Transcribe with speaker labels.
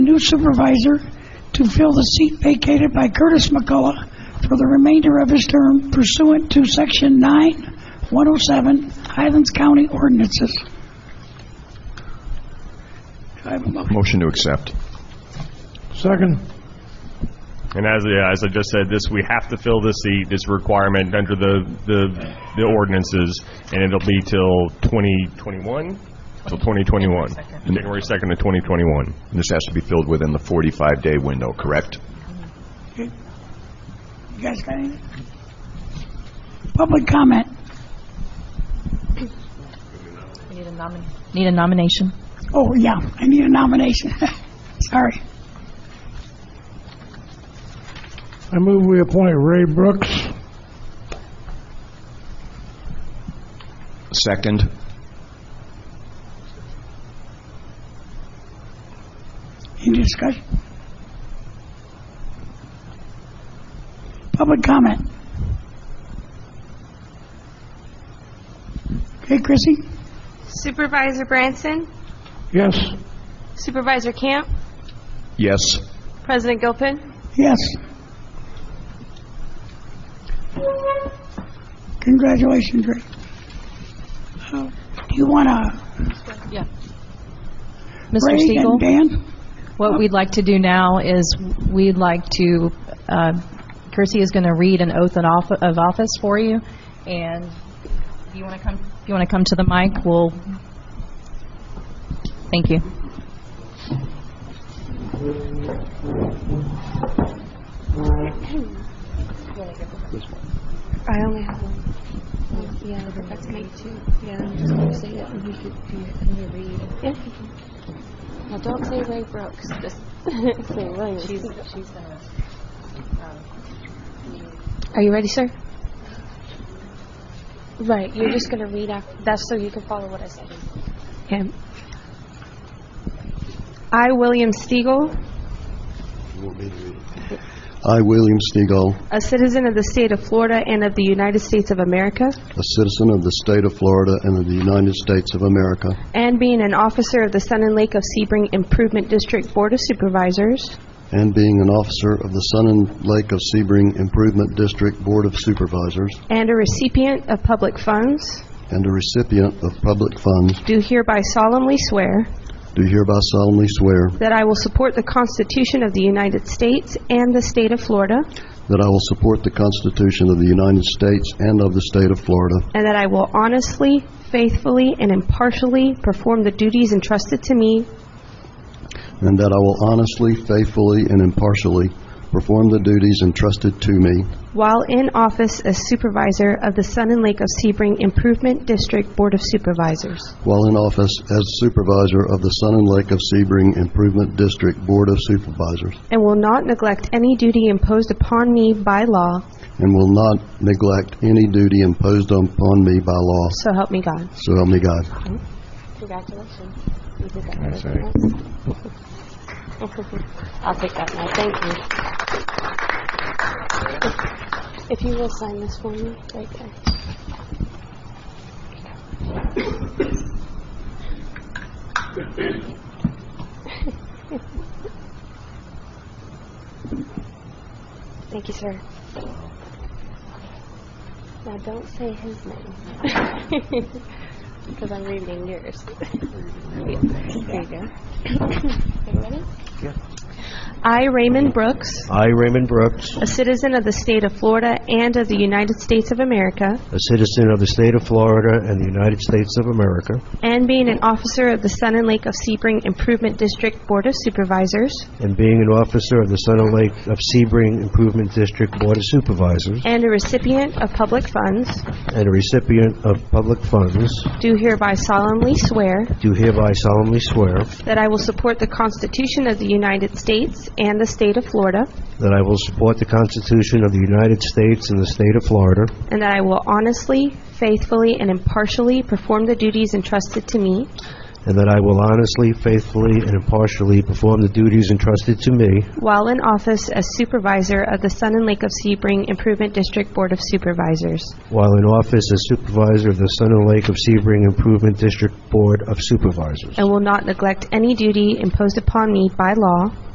Speaker 1: new supervisor to fill the seat vacated by Curtis McCullough for the remainder of his term pursuant to Section 9107 Highlands County ordinances. Do I have a motion?
Speaker 2: Motion to accept.
Speaker 3: Second.
Speaker 4: And as, yeah, as I just said, this, we have to fill this seat, this requirement under the, the, the ordinances, and it'll be till 2021? Till 2021. January 2nd of 2021.
Speaker 2: This has to be filled within the 45-day window, correct?
Speaker 1: You guys got anything? Public comment.
Speaker 5: Need a nomin, need a nomination?
Speaker 1: Oh, yeah, I need a nomination. Sorry.
Speaker 3: I move we appoint Ray Brooks.
Speaker 2: Second.
Speaker 1: Any discussion? Public comment? Okay, Chrissy?
Speaker 6: Supervisor Branson,
Speaker 3: Yes.
Speaker 6: Supervisor Camp,
Speaker 2: Yes.
Speaker 6: President Gilpin.
Speaker 1: Yes. Congratulations, Rick. Uh, Do you want to,
Speaker 5: Yeah. Mr.
Speaker 1: Ray
Speaker 5: Siegel?
Speaker 1: and Dan?
Speaker 5: What we'd like to do now is, we'd like to, uh, Kirsty is going to read an oath and off- of office for you, and if you want to come, if you want to come to the mic, we'll, thank you.
Speaker 6: I only have one. Yeah, that's me too. Yeah, I'm just gonna say it and you could, you read. Yeah. Now, don't say Ray Brooks, just say Williams. She's, she's uh, gonna. Are you ready, sir? Right, you're just gonna read after, that's so you can follow what I say. Okay. I, William Stiegel,
Speaker 7: I, William Stegall,
Speaker 6: a citizen of the state of Florida and of the United States of America,
Speaker 7: a citizen of the state of Florida and of the United States of America,
Speaker 6: and being an officer of the Sun and Lake of Sebring Improvement District Board of Supervisors,
Speaker 7: and being an officer of the Sun and Lake of Sebring Improvement District Board of Supervisors,
Speaker 6: and a recipient of public funds,
Speaker 7: and a recipient of public funds,
Speaker 6: do hereby solemnly swear
Speaker 7: do hereby solemnly swear
Speaker 6: that I will support the Constitution of the United States and the state of Florida,
Speaker 7: that I will support the Constitution of the United States and of the state of Florida,
Speaker 6: and that I will honestly, faithfully, and impartially perform the duties entrusted to me
Speaker 7: and that I will honestly, faithfully, and impartially perform the duties entrusted to me
Speaker 6: while in office as supervisor of the Sun and Lake of Sebring Improvement District Board of Supervisors.
Speaker 7: while in office as supervisor of the Sun and Lake of Sebring Improvement District Board of Supervisors,
Speaker 6: and will not neglect any duty imposed upon me by law,
Speaker 7: and will not neglect any duty imposed upon me by law,
Speaker 6: so help me God.
Speaker 7: so help me God.
Speaker 6: Congratulations. You did that better than us. I'll take that now, thank you. If you will sign this for me, right there. Thank you, sir. Now, don't say his name. Because I'm reading yours. There you go. Are you ready? Yeah. I, Raymond Brooks,
Speaker 8: I, Raymond Brooks,
Speaker 6: a citizen of the state of Florida and of the United States of America,
Speaker 8: a citizen of the state of Florida and the United States of America,
Speaker 6: and being an officer of the Sun and Lake of Sebring Improvement District Board of Supervisors,
Speaker 8: and being an officer of the Sun and Lake of Sebring Improvement District Board of Supervisors,
Speaker 6: and a recipient of public funds,
Speaker 8: and a recipient of public funds,
Speaker 6: do hereby solemnly swear
Speaker 8: do hereby solemnly swear
Speaker 6: that I will support the Constitution of the United States and the state of Florida,
Speaker 8: that I will support the Constitution of the United States and the state of Florida,
Speaker 6: and that I will honestly, faithfully, and impartially perform the duties entrusted to me
Speaker 8: and that I will honestly, faithfully, and impartially perform the duties entrusted to me
Speaker 6: while in office as supervisor of the Sun and Lake of Sebring Improvement District Board of Supervisors,
Speaker 8: while in office as supervisor of the Sun and Lake of Sebring Improvement District Board of Supervisors.
Speaker 6: and will not neglect any duty imposed upon me by law